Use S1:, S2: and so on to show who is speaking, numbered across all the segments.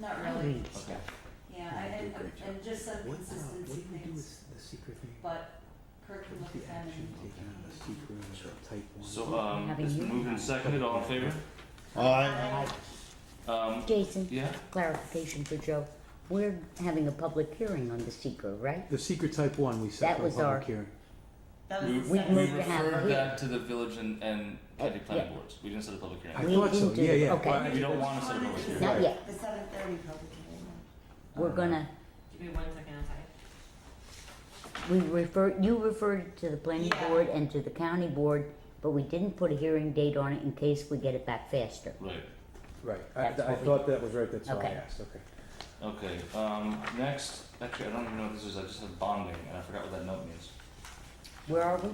S1: like,
S2: Okay.
S1: yeah, I-
S2: They do a
S1: and,
S2: great
S1: and just some
S3: What, uh, what
S1: consistency
S3: do we do
S1: things,
S3: with the secret thing?
S1: but Kirk can
S3: What
S1: look at
S3: is the
S1: them
S3: action
S1: and,
S3: taken on the secret
S2: Sure.
S3: or type one?
S4: So, um,
S5: Having
S4: it's
S5: you.
S4: been moved and seconded, all in favor? Uh,
S2: Aye.
S4: Um,
S5: Jason,
S4: yeah,
S5: clarification for Joe. We're having a public hearing on the seeker, right?
S3: The secret type one, we set
S5: That
S3: for a
S5: was our-
S3: public hearing.
S1: that
S4: we,
S1: was the
S4: we
S5: We've
S1: second.
S5: moved to have
S4: referred
S5: it here.
S4: that to the village and, and county
S5: Uh,
S4: planning
S5: yeah.
S4: boards, we didn't set a public hearing.
S3: I
S5: We
S3: thought so,
S5: didn't do
S3: yeah,
S5: it.
S3: yeah.
S5: Okay.
S3: Why-
S4: We don't want to set a
S1: Wanted
S4: public
S1: to-
S4: hearing.
S5: Not yet.
S1: The seven thirty public hearing.
S5: We're gonna,
S6: Give me one second, I'm sorry.
S5: we refer, you referred it to the planning
S6: Yeah.
S5: board and to the county board, but we didn't put a hearing date on it in case we get it back faster.
S4: Right,
S3: Right, I,
S5: That's
S3: I
S5: what we-
S3: thought that was right, that's all I
S5: Okay.
S3: asked, okay.
S4: okay, um, next, actually, I don't even know what this is, I just have bonding, and I forgot what that note means.
S5: Where are we?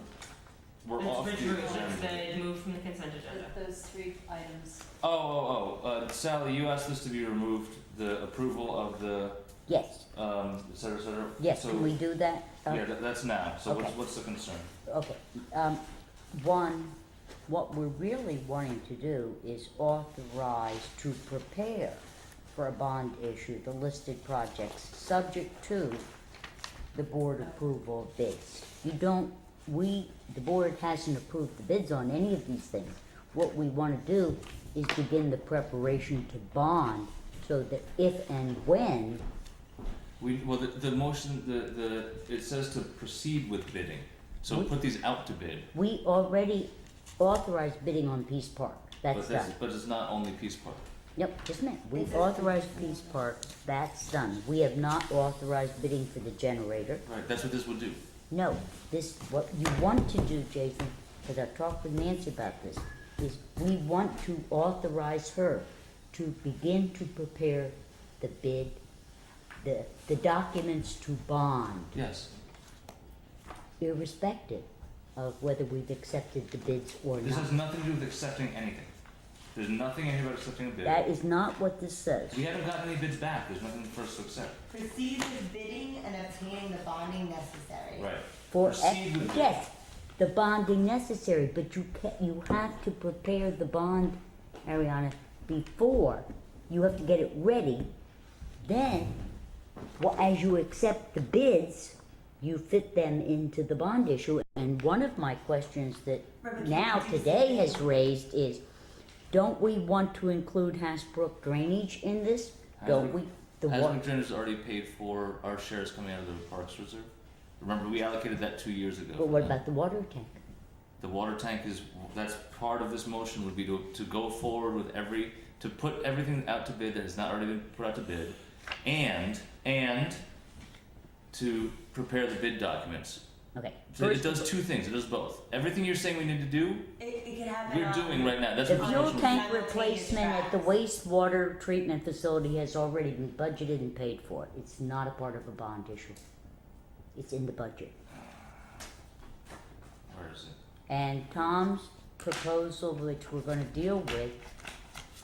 S4: We're
S6: It's
S4: off the
S6: withdrew, it's
S4: agenda.
S6: been moved from the consent agenda.
S1: Those three items,
S4: Oh, oh, oh, uh, Sally, you asked this to be removed, the approval of the,
S5: Yes,
S4: um, et cetera, et cetera.
S5: yes,
S4: So-
S5: can we do that? Uh,
S4: Yeah, that, that's now, so what's,
S5: Okay.
S4: what's the concern?
S5: Okay, um, one, what we're really wanting to do is authorize to prepare for a bond issue, the listed projects, subject to the board approval of bids. You don't, we, the board hasn't approved the bids on any of these things. What we wanna do is begin the preparation to bond, so that if and when,
S4: We, well, the, the motion, the, the, it says to proceed with bidding, so
S5: We-
S4: put these out to bid.
S5: we already authorized bidding on Peace Park, that's
S4: But that's,
S5: done.
S4: but it's not only Peace Park.
S5: Yep, just a minute. We
S1: Is it-
S5: authorized Peace Park, that's done. We have not authorized bidding for the generator.
S4: Right, that's what this would do.
S5: No, this, what you want to do, Jason, because I talked with Nancy about this, is we want to authorize her to begin to prepare the bid, the, the documents to bond,
S4: Yes.
S5: irrespective of whether we've accepted the bids or
S4: This has
S5: not.
S4: nothing to do with accepting anything. There's nothing in here about accepting a bid.
S5: That is not what this says.
S4: We haven't gotten any bids back. There's nothing for us to accept.
S7: Proceed with bidding and obtaining the bonding necessary.
S4: Right.
S5: For,
S4: Proceed with
S5: ex- yes, the bonding necessary, but you ca you have to prepare the bond, Ariana, before, you have to get it ready. Then, well, as you accept the bids, you fit them into the bond issue. And one of my questions that
S1: Right, but
S5: now
S1: can't you
S5: today
S1: say-
S5: has raised is, don't we want to include Hasbrook drainage in this? Don't
S4: Hasbrook-
S5: we, the
S4: Hasbrook
S5: one,
S4: Drainage has already paid for our shares coming out of the Parks Reserve. Remember, we allocated that two years ago. for
S5: but what
S4: that.
S5: about the water tank?
S4: The water tank is, that's part of this motion would be to, to go forward with every, to put everything out to bid that has not already been put out to bid. And, and to prepare the bid documents.
S5: Okay.
S4: So it
S5: first-
S4: does two things, it does both. Everything you're saying we need to do,
S1: it, it could happen
S4: we're
S1: on.
S4: doing right now, that's
S5: The
S4: what this
S5: fuel
S4: motion was.
S5: tank replacement at the wastewater treatment facility has already been budgeted and paid for. It's not a part of a bond issue. It's in the budget.
S4: Where is it?
S5: And Tom's proposal, which we're gonna deal with,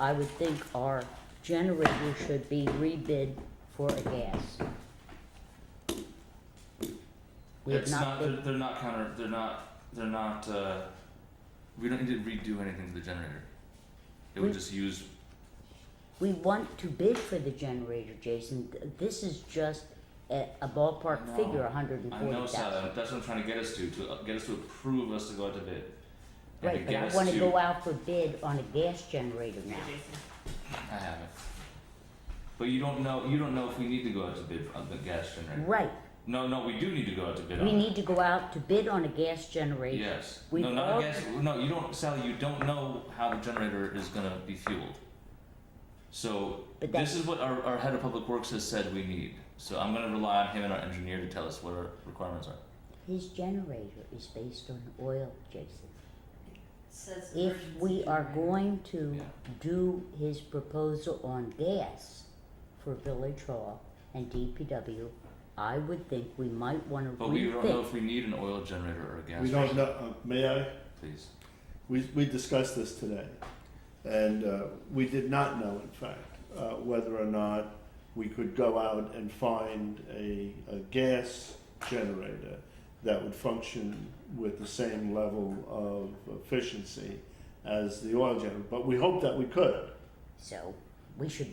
S5: I would think our generator should be rebid for a gas. We have
S4: It's not,
S5: not,
S4: they're,
S5: bid-
S4: they're not counter, they're not, they're not, uh, we don't need to redo anything to the generator. It would
S5: We-
S4: just use,
S5: we want to bid for the generator, Jason. This is just a, a ballpark
S4: No.
S5: figure, a hundred and
S4: I
S5: forty thousand.
S4: know, Sal, that's what I'm trying to get us to, to uh, get us to approve us to go out to bid. And to
S5: Right, but
S4: get
S5: I
S4: us
S5: wanna
S4: to-
S5: go out for bid on a gas generator now.
S6: Hey, Jason.
S4: I haven't. But you don't know, you don't know if we need to go out to bid on the gas generator.
S5: Right,
S4: No, no, we do need to go out to bid on
S5: we
S4: it.
S5: need to go out to bid on a gas generator.
S4: Yes,
S5: We've
S4: no, not
S5: all-
S4: a gas, no, you don't, Sally, you don't know how the generator is gonna be fueled. So,
S5: But
S4: this
S5: that's-
S4: is what our, our head of public works has said we need, so I'm gonna rely on him and our engineer to tell us what our requirements are.
S5: His generator is based on oil, Jason.
S1: Says
S5: If
S1: emergency
S5: we are
S1: generator.
S5: going to
S4: Yeah.
S5: do his proposal on gas for Village Hall and DPW, I would think we might wanna
S4: But we don't know
S5: rethink.
S4: if we need an oil generator or a gas
S2: We
S4: generator,
S2: don't know, uh, may I?
S4: please.
S2: We, we discussed this today. And uh, we did not know, in fact, uh, whether or not we could go out and find a, a gas generator that would function with the same level of efficiency as the oil generator. But we hoped that we could.
S5: So, we should